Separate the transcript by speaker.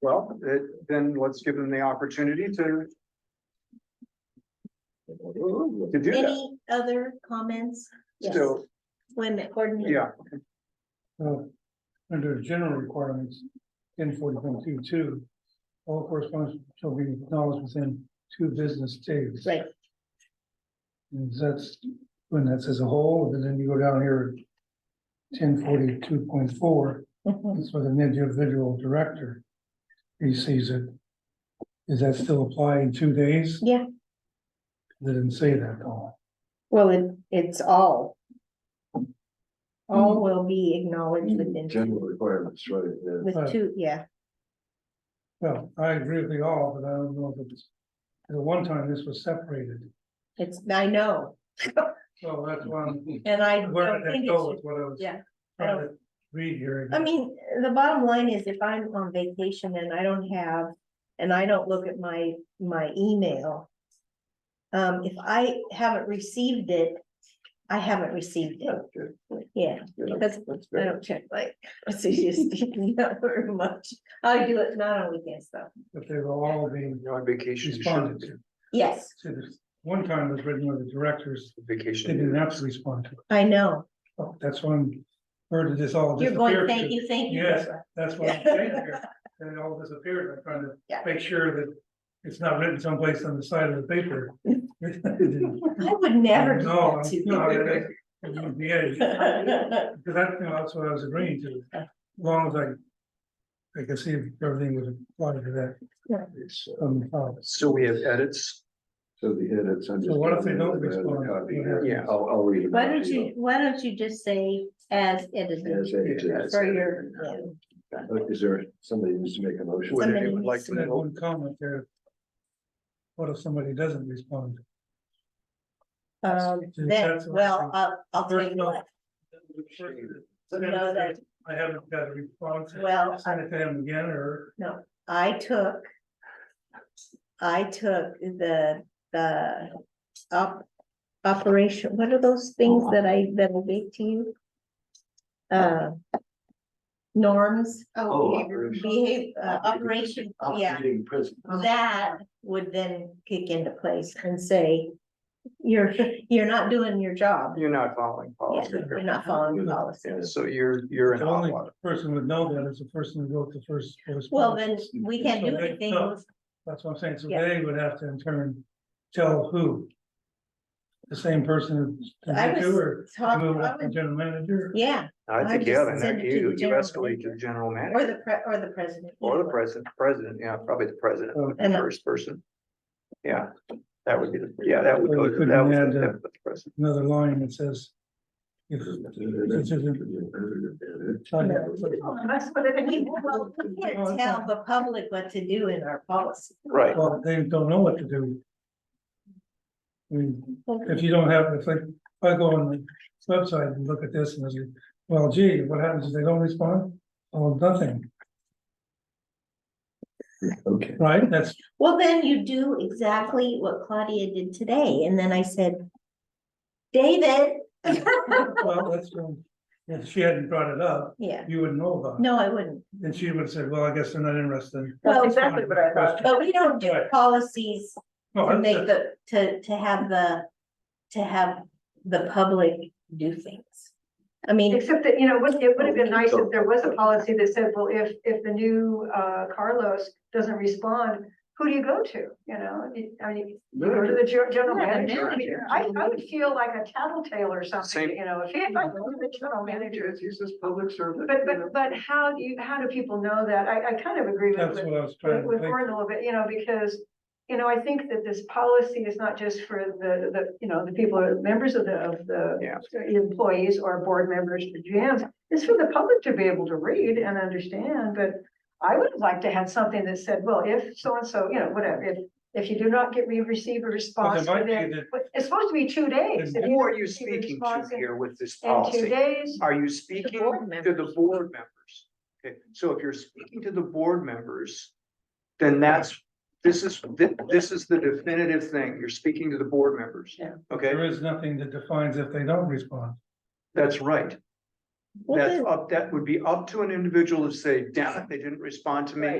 Speaker 1: Well, it- then let's give them the opportunity to. To do that,
Speaker 2: Any other comments? Yes.
Speaker 1: so,
Speaker 2: Wait a minute, Gordon. you-
Speaker 1: yeah,
Speaker 3: Uh, under general requirements, ten forty point two two, all correspondence shall be acknowledged within two business days.
Speaker 2: Right,
Speaker 3: And that's, when that's as a whole, and then you go down here. Ten forty two point four,
Speaker 2: mhm.
Speaker 3: that's with an individual director. He sees it. Does that still apply in two days?
Speaker 2: Yeah.
Speaker 3: They didn't say that, though.
Speaker 4: Well, it, it's all,
Speaker 2: all will be acknowledged within,
Speaker 5: General requirements, right, yeah.
Speaker 2: with two, yeah,
Speaker 3: Well, I agree with you all, but I don't know if it's, at one time this was separated,
Speaker 2: it's, I know,
Speaker 3: so that's why I'm
Speaker 2: and Mm-hmm. I
Speaker 3: Where
Speaker 2: don't
Speaker 3: did
Speaker 2: think
Speaker 3: that
Speaker 2: it
Speaker 3: go
Speaker 2: should.
Speaker 3: with what I was
Speaker 2: yeah, I
Speaker 3: trying to read here?
Speaker 2: I mean, the bottom line is if I'm on vacation and I don't have, and I don't look at my, my email. Um, if I haven't received it, I haven't received it,
Speaker 5: good,
Speaker 2: yeah,
Speaker 5: yeah,
Speaker 2: because
Speaker 5: that's
Speaker 2: I
Speaker 5: good.
Speaker 2: don't check like, it's just, not very much. I do it not on weekends though,
Speaker 3: If they were all being
Speaker 1: you're on vacation. you shouldn't
Speaker 3: responded
Speaker 1: be.
Speaker 3: to,
Speaker 2: yes,
Speaker 3: So this, one time it was written where the directors, they didn't
Speaker 1: Vacation,
Speaker 3: have to respond to it,
Speaker 2: I know,
Speaker 3: Oh, that's when, where did this all
Speaker 2: you're going,
Speaker 3: disappear?
Speaker 2: thank you, thank you.
Speaker 3: Yes.
Speaker 2: Deborah."
Speaker 3: That's what I'm saying here, and it all disappeared, I'm trying
Speaker 2: Yeah.
Speaker 3: to make sure that it's not written someplace on the side of the paper.
Speaker 2: I would never do
Speaker 3: No,
Speaker 2: that to
Speaker 3: no, I- I-
Speaker 2: you.
Speaker 3: it wouldn't be it. Because that's, you know, that's what I was agreeing to, as long as I, I could see if everything would apply to that.
Speaker 5: It's, uh,
Speaker 3: um, uh,
Speaker 1: so we have edits,
Speaker 5: So the edits. I'm
Speaker 3: So
Speaker 5: just
Speaker 3: what if they
Speaker 5: gonna
Speaker 3: don't
Speaker 5: add a
Speaker 3: respond?
Speaker 5: copy here.
Speaker 1: Yeah.
Speaker 5: uh, I'll, I'll read. it
Speaker 2: Why
Speaker 5: out
Speaker 2: don't
Speaker 5: to
Speaker 2: you, why don't you just say as edited
Speaker 5: As edited.
Speaker 1: Yes.
Speaker 2: for your, yeah.
Speaker 5: Look, Is there, somebody needs to make a motion.
Speaker 1: whether they
Speaker 2: Somebody
Speaker 1: would like
Speaker 2: needs
Speaker 3: So
Speaker 1: to
Speaker 3: that
Speaker 1: know,
Speaker 3: one comment there. What if somebody doesn't respond?
Speaker 2: Um,
Speaker 3: Yes,
Speaker 2: then,
Speaker 3: that's what
Speaker 2: well,
Speaker 3: I'm-
Speaker 2: I'll, I'll tell you
Speaker 3: Personal.
Speaker 2: what, No, that-
Speaker 3: I haven't got a response.
Speaker 2: Well,
Speaker 3: Send it to him again, or
Speaker 2: I took. I took the, the op- operation, what are those things that I, that will be to you? Uh. Norms,
Speaker 5: Oh,
Speaker 2: oh,
Speaker 5: operation.
Speaker 2: behave, uh, operation, yeah.
Speaker 5: Operating prison.
Speaker 2: that would then kick into place and say, you're, you're not doing your job.
Speaker 1: you're not following
Speaker 2: Yeah,
Speaker 1: policy.
Speaker 2: You're not following policy.
Speaker 1: Oh, Yeah, so you're, you're in
Speaker 3: The
Speaker 1: hot
Speaker 3: only-
Speaker 1: water.
Speaker 3: person would know that is the person who wrote the first response.
Speaker 2: Well, then we can't do
Speaker 3: So they-
Speaker 2: anything.
Speaker 3: no. That's what I'm saying, so
Speaker 2: Yeah.
Speaker 3: they would have to in turn tell who? The same person who
Speaker 2: I
Speaker 3: did it to,
Speaker 2: was
Speaker 3: or
Speaker 2: talking,
Speaker 3: move
Speaker 2: I
Speaker 3: up to
Speaker 2: was-
Speaker 3: general manager?
Speaker 2: yeah,
Speaker 1: I
Speaker 2: I
Speaker 1: think,
Speaker 2: just
Speaker 1: yeah, then
Speaker 2: send
Speaker 1: that
Speaker 2: it to the
Speaker 1: you, you
Speaker 2: general
Speaker 1: escalate to
Speaker 2: manager.
Speaker 1: the general
Speaker 2: or
Speaker 1: manager,
Speaker 2: the pre, or the president.
Speaker 1: or the president, president, yeah, probably the president,
Speaker 3: Oh.
Speaker 1: the first person. Yeah, that would be, the yeah, that would,
Speaker 3: Or
Speaker 1: go
Speaker 3: you
Speaker 1: to-
Speaker 3: couldn't
Speaker 1: that would,
Speaker 3: add, uh,
Speaker 1: that would, the president.
Speaker 3: Another line that says. If it's a-
Speaker 2: Well, We can't tell the public what to do in our policy.
Speaker 1: right,
Speaker 3: Well, they don't know what to do. I mean, if you don't have, if I, if I go on the website and look at this and I say, well, gee, what happens if they don't respond? Oh, nothing,
Speaker 5: Okay.
Speaker 3: right? That's,
Speaker 2: Well, then you do exactly what Claudia did today, and then I said, David.
Speaker 3: well, that's, um, if she hadn't brought it up,
Speaker 2: Yeah,
Speaker 3: you wouldn't know about it.
Speaker 2: no, I wouldn't.
Speaker 3: And she would have said, well, I guess they're not interested.
Speaker 2: Well,
Speaker 3: exactly what I thought.
Speaker 2: But we don't do
Speaker 3: Right. Oh,
Speaker 2: policies
Speaker 3: No,
Speaker 2: to make
Speaker 3: that's-
Speaker 2: the, to, to have the, to have the public do things. I mean,
Speaker 6: Except that, you know, wouldn't- it would have been nice if there was a policy that said, well, if, if the new uh, Carlos doesn't respond, who do you go to, you know? I mean, you go to the gen- general
Speaker 2: Yeah, the
Speaker 6: manager. I mean, I, I would feel like a tattletale or
Speaker 1: Same.
Speaker 6: something, you know, if he had like, the general manager.
Speaker 5: He's this public servant.
Speaker 6: But, but, but how do you, how do people know that? I, I kind of agree with,
Speaker 3: That's
Speaker 6: with
Speaker 3: what I was
Speaker 6: with
Speaker 3: trying to
Speaker 6: with
Speaker 3: think.
Speaker 6: Gordon a little bit, you know, because, you know, I think that this policy is not just for the, the, you know, the people, who are members of the, of the
Speaker 1: Yeah.
Speaker 6: employees or board members, the GMs, it's for the public to be able to read and understand, but I would like to have something that said, well, if so-and-so, you know, whatever, if, if you do not get me, receive a
Speaker 3: But
Speaker 6: response
Speaker 3: there might
Speaker 6: within-
Speaker 3: be that-
Speaker 6: but it's supposed to be two days. If
Speaker 3: And
Speaker 6: you
Speaker 1: who
Speaker 6: don't
Speaker 1: are you
Speaker 6: receive a
Speaker 1: speaking to
Speaker 6: response in-
Speaker 1: here with this
Speaker 6: In two
Speaker 1: policy?
Speaker 6: days,
Speaker 1: Are you speaking
Speaker 2: board
Speaker 1: to the
Speaker 2: members.
Speaker 1: board members? Okay, so if you're speaking to the board members, then that's, this is, thi- this is the definitive thing. You're speaking to the board members.
Speaker 6: Yeah.
Speaker 1: Okay,
Speaker 3: There is nothing that defines if they don't respond.
Speaker 1: that's right.
Speaker 2: Well,
Speaker 1: That's
Speaker 2: then-
Speaker 1: up, that would be up to an individual to say, damn it, they didn't respond to me.
Speaker 6: Right.